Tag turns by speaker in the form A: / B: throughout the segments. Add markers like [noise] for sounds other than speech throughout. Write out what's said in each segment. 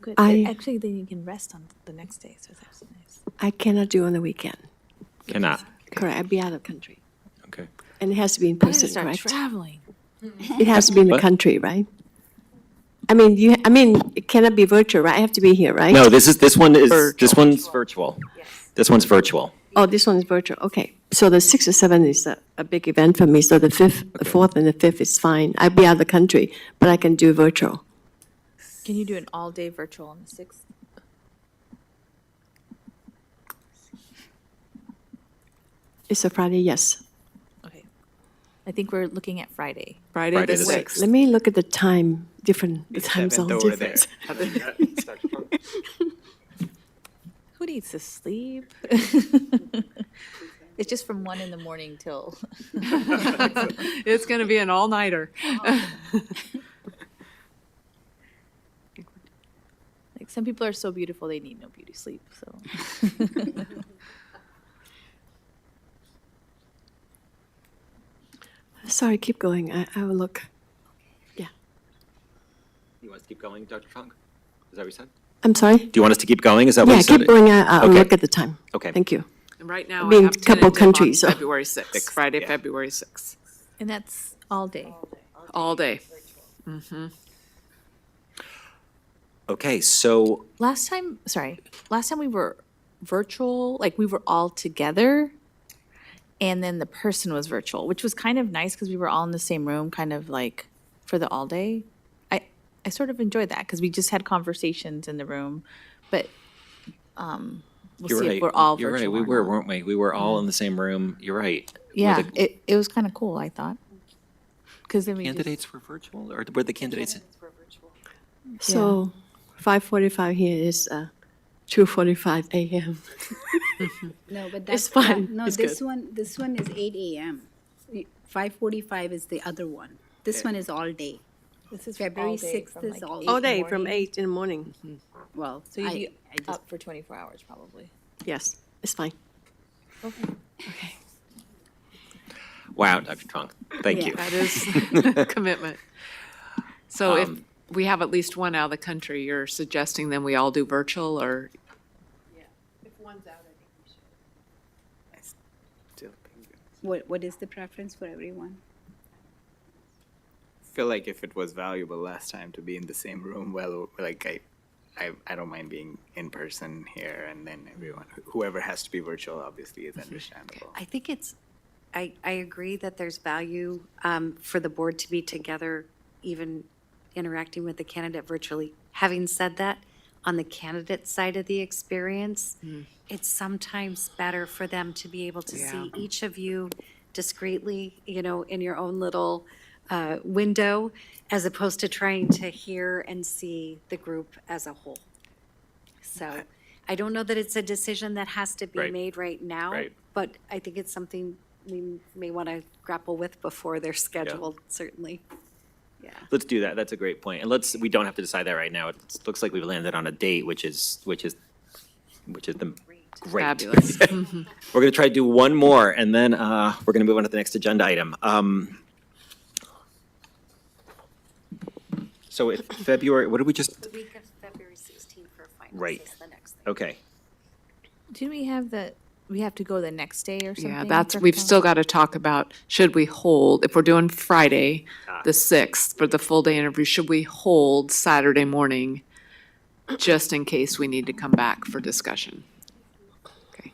A: Good.
B: I-
A: Actually, then you can rest on the next day, so that's nice.
B: I cannot do on the weekend.
C: Cannot.
B: Correct, I'd be out of country.
C: Okay.
B: And it has to be in
A: I gotta
B: person,
A: start
B: correct?
A: traveling.
B: It has to be in the
C: What?
B: country, right? I mean, you, I mean, it cannot be virtual, right? I have to be here, right?
C: No, this is, this one is, this one's virtual. This one's virtual.
B: Oh, this one is virtual, okay. So the sixth or seventh is a, a big event for me, so the fifth, the fourth and the fifth is fine. I'd be out of the country, but I can do virtual.
A: Can you do an all-day virtual on the sixth?
B: It's a Friday, yes.
A: Okay. I think we're looking at Friday.
D: Friday
C: Friday
D: the
C: the
B: Wait,
C: sixth.
D: sixth.
B: Let me look at the time, different, the time zone difference.
A: Who needs to sleep? [laughs] It's just from one in the morning till, [laughs]
D: [laughs] It's going to be an all-nighter.
A: like, some people are so beautiful, they need no beauty sleep, so.
B: [laughs] Sorry, keep going, I, I will look.
C: You want us to keep going, Dr. Funk? Is that what you said?
B: I'm sorry?
C: Do you want us to keep going? Is that what
B: Yeah,
C: you said?
B: keep going, I, I'll
C: Okay.
B: look at the time.
C: Okay.
B: Thank you.
D: And right now, I
B: Being
D: have
B: couple
D: tentative on
B: countries, so-
D: February sixth,
C: Sixth,
D: Friday,
C: yeah.
D: February sixth,
A: And that's all day.
D: all day.
C: Okay, so,
A: Last time, sorry, last time we were virtual, like we were all together. And then the person was virtual, which was kind of nice because we were all in the same room, kind of like for the all day. I, I sort of enjoyed that because we just had conversations in the room, but, um, we'll
C: you're
A: see if
C: right.
A: we're all
C: You're right,
A: virtual
C: we
A: or
C: were,
A: not.
C: weren't we? We were all in the same room. You're right. Were
A: Yeah,
C: the
A: it, it was kind of cool, I thought. Because then we just-
C: Candidates were virtual or were the candidates?
B: So, five forty-five here is, uh, two forty-five AM.
E: No, but that's.
B: It's
E: that-
B: fine.
E: No,
B: It's
E: this
B: good.
E: one, this one is eight AM. Five forty-five is the other one. This one is all day.
A: This is
E: February sixth is all.
B: [laughs] All day, from eight in the morning,
E: Well,
A: So you'd
E: I,
A: be
E: I just,
A: up for twenty-four hours probably.
B: yes, it's fine.
C: Wow, Dr. Funk, thank
E: Yeah.
C: you.
D: That is [laughs] commitment. So if we have at least one out of the country, you're suggesting then we all do virtual or?
E: what, what is the preference for everyone?
F: feel like if it was valuable last time to be in the same room, well, like I, I, I don't mind being in person here, and then everyone, whoever has to be virtual, obviously, is understandable.
G: I think it's, I, I agree that there's value um, for the board to be together, even interacting with the candidate virtually. Having said that, on the candidate side of the experience,
C: Mm-hmm.
G: it's sometimes better for them to be able to see each of you discreetly, you know, in your own little uh, window, as opposed to trying to hear and see the group as a whole. So I don't know that it's a decision that has to be
C: Right.
G: made right now.
C: Right.
G: But I think it's something we may want to grapple with before they're scheduled, certainly.
C: Let's do that. That's a great point. And let's, we don't have to decide that right now. It looks like we've landed on a date, which is, which is, which is the, great.
D: Fabulous.
C: Mm-hmm. We're going to try to do one more, and then uh, we're going to move on to the next agenda item. Um, So if February, what did we just,
G: The week of February 16th for
C: Right. Oh.
G: finals is the next thing.
C: okay,
A: Didn't we have the, we have to go the next day or something?
D: Yeah, that's,
A: for
D: we've
A: final?
D: still got to talk about, should we hold, if we're doing Friday, the sixth, for the full day interview, should we hold Saturday morning? Just in case we need to come back for discussion. Okay,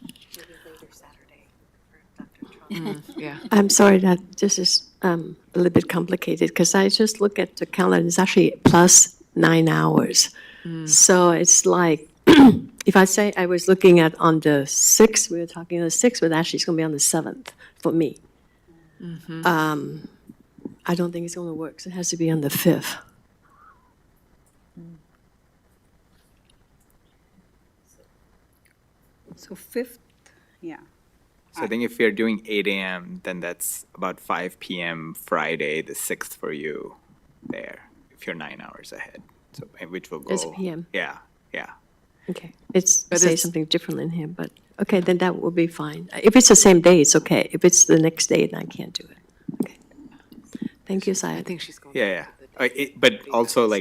G: Maybe later Saturday for Dr. Trump.
D: yeah.
B: I'm sorry that this is um, a little bit complicated because I just look at the calendar, it's actually plus nine hours. So it's like, [clears throat] if I say I was looking at on the 6th, we were talking on the 6th, but actually it's going to be on the 7th for me. Um, I don't think it's going to work, 'cause it has to be on the 5th.
E: So fifth, yeah.
F: So I think if you're doing eight AM, then that's about five PM Friday, the sixth for you there, if you're nine hours ahead, so, eh, which will go.
B: It's PM.
F: Yeah, yeah.
B: Okay, it's,
D: But
B: say
D: it's-
B: something different in here, but, okay, then that will be fine. If it's the same day, it's okay. If it's the next day, then I can't do it. Okay. Thank you, Syed.
D: I think she's going.
F: Yeah, yeah. Uh, it- But also, like,